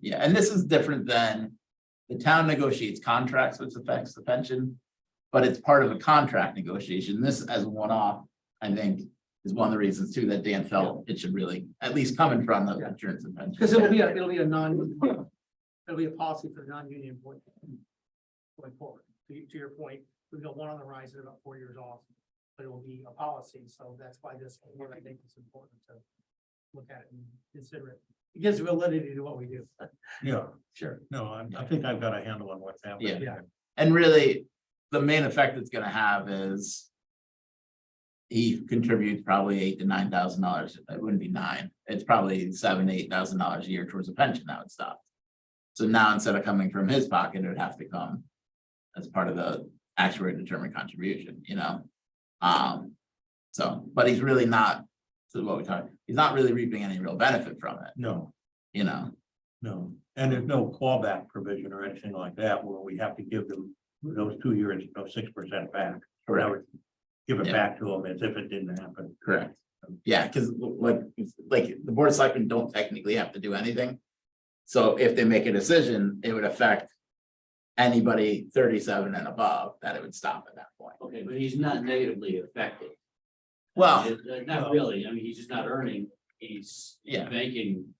Yeah, and this is different than the town negotiates contracts which affects the pension. But it's part of a contract negotiation. This as a one-off, I think, is one of the reasons too that Dan felt it should really, at least coming from the Yeah. insurance and pension. Because it'll be, a it'll be a non, it'll be a policy for the non-union employee. Going forward, to, to your point, we've got one on the rise in about four years off, but it will be a policy, so that's why this, one, I think it's important to look at it and consider it. It gives validity to what we do. Yeah, Sure. no, I'm- I, think I've got a handle on what's happening. Yeah. And really, the main effect it's gonna have is. He contributes probably eight to nine thousand dollars. It wouldn't be nine. It's probably seven, eight thousand dollars a year towards a pension now it's stopped. So now instead of coming from his pocket, it would have to come. As part of the actuary determined contribution, you know? Um, so, but he's really not, this is what we talked, he's not really reaping any real benefit from it, No, you know? no, and there's no clawback provision or anything like that where we have to give them those two years, those six percent back. Or I would Give it Yeah. back to them as if it didn't happen. Correct. Yeah, because like, like the board of selectmen don't technically have to do anything. So if they make a decision, it would affect anybody thirty-seven and above, that it would stop at that point. Okay, but he's not negatively affected. Well, Uh, uh, Not really, I mean, he's just not earning, he's Yeah. making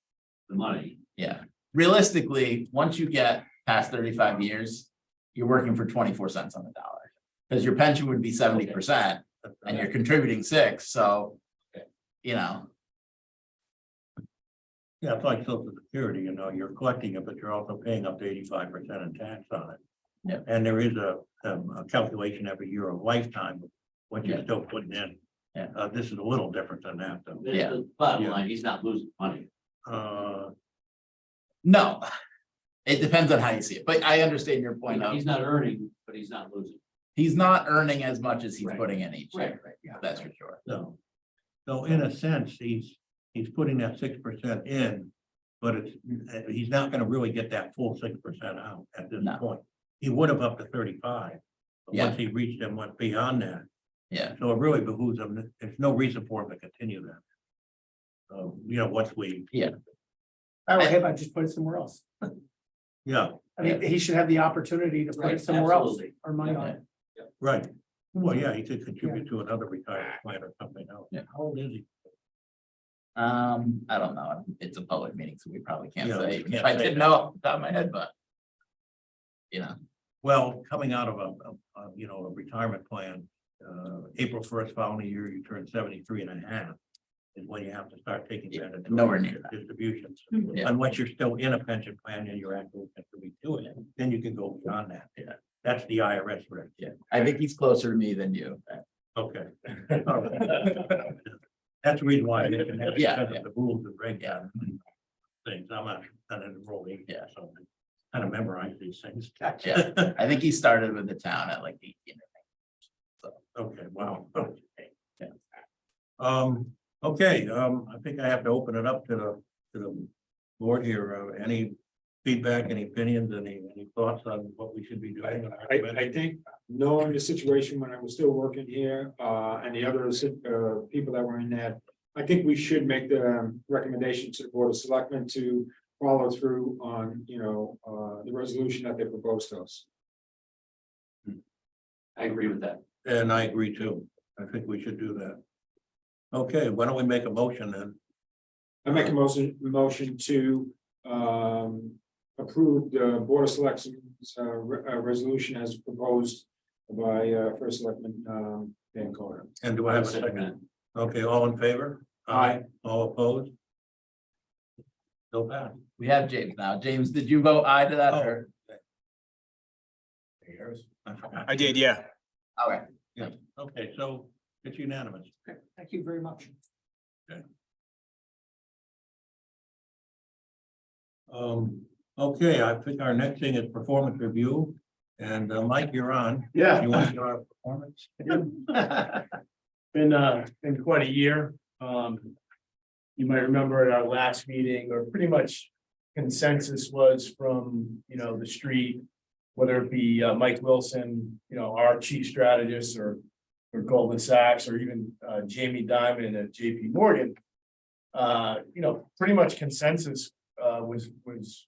the money. yeah, realistically, once you get past thirty-five years, you're working for twenty-four cents on the dollar. Because your pension would be seventy percent and you're contributing six, so. Okay. You know, Yeah, it's like social security, you know, you're collecting it, but you're also paying up to eighty-five percent in tax on it. Yeah. And there is a, um, a calculation every year of lifetime, of what you're Yeah. still putting in. Yeah. Uh, this is a little different than that, though. The- Yeah. the Bottom Yeah. line, he's not losing money. Uh, no. It depends on how you see it, but I understand your point of. He's not earning, but he's not losing. He's not earning as much as he's Right. putting in each year, right. that's for sure. so, so in a sense, he's, he's putting that six percent in, but it's, uh, he's not gonna really get that full six percent out at this No. point. He would have up to thirty-five. But Yeah. once he reached and went beyond that, Yeah, So it really behooves them, there's no reason for them to continue that. So, you know, once we, I would have, I just put it somewhere else. yeah, I mean, he should have the opportunity to put Right, it somewhere else, absolutely. or money on it. right. Well, yeah, he could contribute to another retirement plan or something else. Yeah. How old is he? um, I don't know, it's a public meeting, so we probably can't Yeah, we say, can't if I say didn't that. know off the top of my head, but. You know, Well, coming out of a, a- a, you know, a retirement plan, uh, April first following year, you turn 73 and a half Is when you have to start taking Yeah, that. into nowhere near that. Distributions, Yeah. unless you're still in a pension plan and you're actually going to doing it, then you can go beyond that. Yeah. That's the IRS rate. I think he's closer to me than you. Okay. All right. That's the reason why. I didn't have it, Yeah, because of yeah. The rules and breakdown. Things, I'm not, not enrolling. Yeah. So kind of memorize these things. Yeah. I think he started with the town at like eighteen. Okay, wow. Yeah. Um, okay, um, I think I have to open it up to the, to the board here. Uh, Any feedback, any opinions, any, any thoughts on what we should be doing? I, I think, knowing the situation when I was still working here, uh, and the other, si- uh, people that were in that. I think we should make the um, recommendation to the Board of Selectmen to follow through on, you know, uh, the resolution that they proposed to us. I agree with that. And I agree too. I think we should do that. Okay, why don't we make a motion then? I make a motion, motion to, um, approve the Board of Selectmen's, uh, re- uh, resolution as proposed by, uh, First Selectman, um, Van Corder. And do I have a second? Okay, all in favor? Aye. All opposed? So bad. We have James now. James, did you vote aye to that Oh, or? I did, yeah. Okay, Okay, so it's unanimous. Thank you very much. Um, okay, I think our next thing is performance review. And uh, Mike, you're on. Yeah, You want to do our performance? been, uh, been quite a year. Um. You might remember at our last meeting, or pretty much consensus was from, you know, the street. Whether it be uh, Mike Wilson, you know, our chief strategist or, or Goldman Sachs, or even, uh, Jamie Diamond at JP Morgan. Uh, you know, pretty much consensus, uh, was, was